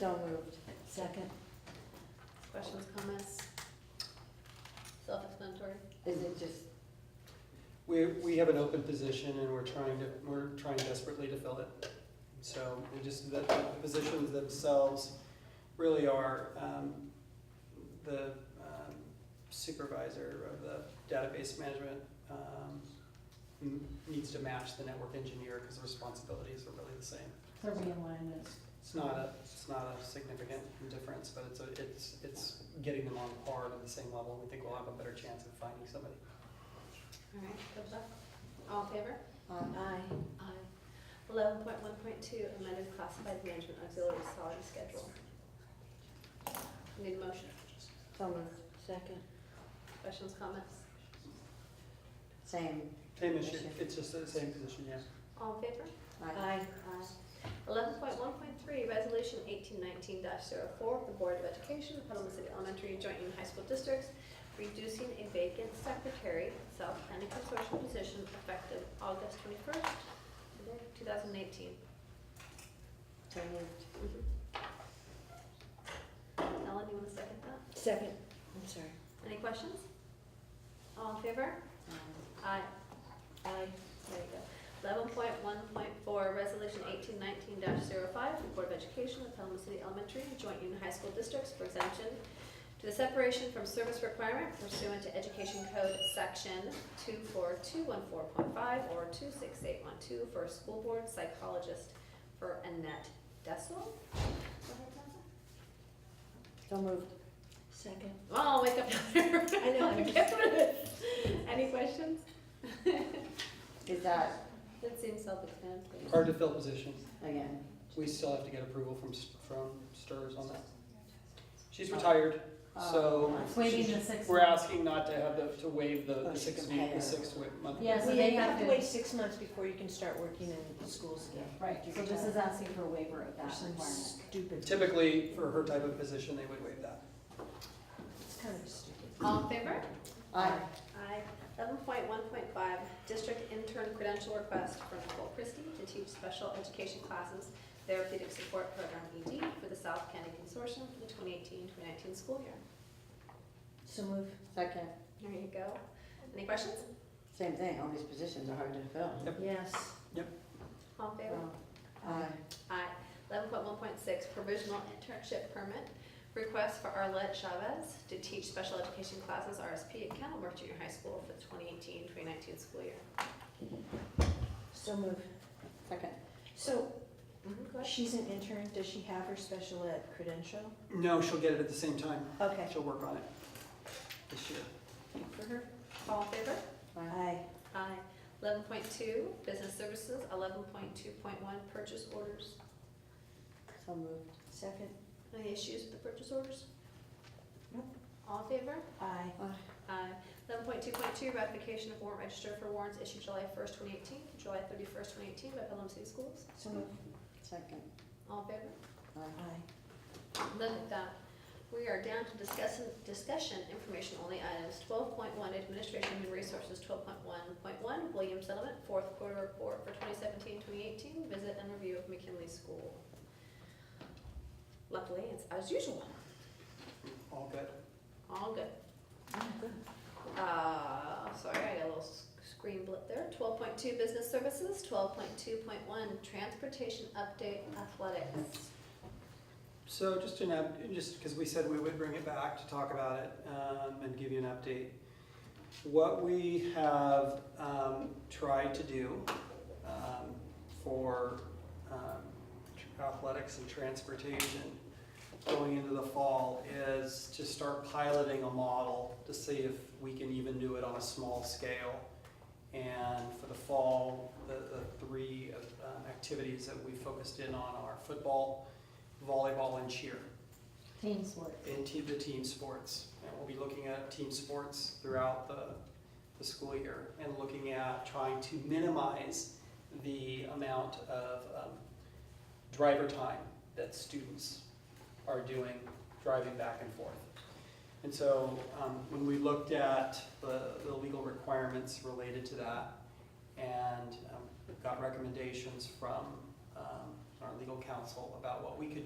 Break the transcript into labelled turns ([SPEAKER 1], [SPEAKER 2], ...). [SPEAKER 1] So moved. Second.
[SPEAKER 2] Questions, comments? Self-explanatory.
[SPEAKER 1] Is it just,
[SPEAKER 3] We, we have an open position and we're trying to, we're trying desperately to fill it. So, and just that the positions themselves really are um, the um, supervisor of the database management um, n- needs to match the network engineer because the responsibilities are really the same.
[SPEAKER 4] So realignment.
[SPEAKER 3] It's not a, it's not a significant difference, but it's, a- it's, it's getting them on par to the same level. We think we'll have a better chance of finding somebody.
[SPEAKER 2] All right, thumbs up. All in favor?
[SPEAKER 1] aye,
[SPEAKER 2] Aye. Eleven point one point two, amended classified management auxiliary salary schedule. Need a motion?
[SPEAKER 1] so moved. Second.
[SPEAKER 2] Questions, comments?
[SPEAKER 1] Same.
[SPEAKER 3] Same issue, it's just the same position, yeah.
[SPEAKER 2] All in favor?
[SPEAKER 1] Aye.
[SPEAKER 2] Aye. Eleven point one point three, resolution eighteen nineteen 4 the Board of Education, Petaluma City Elementary Joint Union High School Districts, reducing a vacant secretary, self-planning consortium position effective August twenty-first, two thousand eighteen.
[SPEAKER 1] So moved.
[SPEAKER 2] Ellen, you want to second that?
[SPEAKER 1] Second. I'm sorry.
[SPEAKER 2] Any questions? All in favor?
[SPEAKER 1] Aye.
[SPEAKER 2] Aye.
[SPEAKER 1] Aye.
[SPEAKER 2] There you go. Eleven point one point four, resolution eighteen nineteen 5 the Board of Education of Pelham City Elementary and Joint Union High School Districts for exemption to the separation from service requirement pursuant to Education Code Section two four two one four point five or two six eight one two for a school board psychologist for Annette Dessel.
[SPEAKER 1] So moved. Second.
[SPEAKER 2] Oh, wake up. I
[SPEAKER 1] know, I'm just-
[SPEAKER 2] Any questions?
[SPEAKER 1] Is that,
[SPEAKER 2] That seems self-explanatory.
[SPEAKER 3] Hard to fill positions.
[SPEAKER 1] again,
[SPEAKER 3] We still have to get approval from, S- from STRS on that. She's retired, so
[SPEAKER 1] Oh.
[SPEAKER 4] Waiting the six.
[SPEAKER 3] we're
[SPEAKER 4] months.
[SPEAKER 3] asking not to have the, to waive the
[SPEAKER 1] Oh,
[SPEAKER 3] the six
[SPEAKER 1] she's
[SPEAKER 3] week, the
[SPEAKER 1] retired.
[SPEAKER 3] six wi- month.
[SPEAKER 4] Yeah, so they have to,
[SPEAKER 5] six months before you can start working in schools again.
[SPEAKER 4] right, so this is asking for a waiver of that requirement.
[SPEAKER 5] Stupid.
[SPEAKER 3] Typically, for her type of position, they would waive that.
[SPEAKER 5] It's kind of stupid.
[SPEAKER 2] All in favor?
[SPEAKER 1] aye,
[SPEAKER 2] Aye. Eleven point one point five, district intern credential request for Nicole Christie to teach special education classes, therapeutic support program ED for the South County Consortium for the 2018-2019 school year.
[SPEAKER 5] So move.
[SPEAKER 1] second,
[SPEAKER 2] There you go. Any questions?
[SPEAKER 1] same thing, all these positions are hard to fill.
[SPEAKER 5] Yes.
[SPEAKER 2] All in favor?
[SPEAKER 1] Aye,
[SPEAKER 2] Aye. Eleven point one point six, provisional internship permit, request for Arlette Chavez to teach special education classes RSP at Kennelworth Junior High School for the 2018-2019 school year.
[SPEAKER 5] So move.
[SPEAKER 1] second.
[SPEAKER 5] So
[SPEAKER 2] Mhm, go ahead.
[SPEAKER 5] she's an intern. Does she have her special ed credential?
[SPEAKER 3] No, she'll get it at the same time.
[SPEAKER 5] Okay.
[SPEAKER 3] She'll work on it this year.
[SPEAKER 5] For her?
[SPEAKER 2] All in favor?
[SPEAKER 5] Aye.
[SPEAKER 2] Aye. Eleven point two, business services, eleven point two point one, purchase orders.
[SPEAKER 1] So moved.
[SPEAKER 5] Second?
[SPEAKER 2] Any issues with the purchase orders?
[SPEAKER 5] Nope.
[SPEAKER 2] All in favor?
[SPEAKER 5] Aye.
[SPEAKER 2] Aye. Eleven point two point two, ratification of warrant register for warrants issued July first, twenty eighteen, July thirty-first, twenty eighteen by Pelham City Schools.
[SPEAKER 5] So move.
[SPEAKER 1] Second.
[SPEAKER 2] All in favor?
[SPEAKER 1] Aye.
[SPEAKER 5] Aye.
[SPEAKER 2] Look at that. We are down to discussion, discussion, information only items. Twelve point one, administration and resources, twelve point one point one, Williams Settlement, fourth quarter report for 2017-2018. visit and review of McKinley School. Luckily, it's as usual,
[SPEAKER 3] All good.
[SPEAKER 2] all good. Uh, sorry, I got a little s- screen blip there. Twelve point two, business services, twelve point two point one, transportation update athletics.
[SPEAKER 3] So just an up, just because we said we would bring it back to talk about it um, and give you an update. What we have um, tried to do um, for um, tr- athletics and transportation going into the fall is to start piloting a model to see if we can even do it on a small scale. And for the fall, the, the three uh, activities that we focused in on are football, volleyball and cheer
[SPEAKER 4] Team sports.
[SPEAKER 3] in te- the team sports. And we'll be looking at team sports throughout the, the school year and looking at trying to minimize the amount of um, driver time that students are doing driving back and forth. And so um, when we looked at the, the legal requirements related to that and um, got recommendations from um, our legal counsel about what we could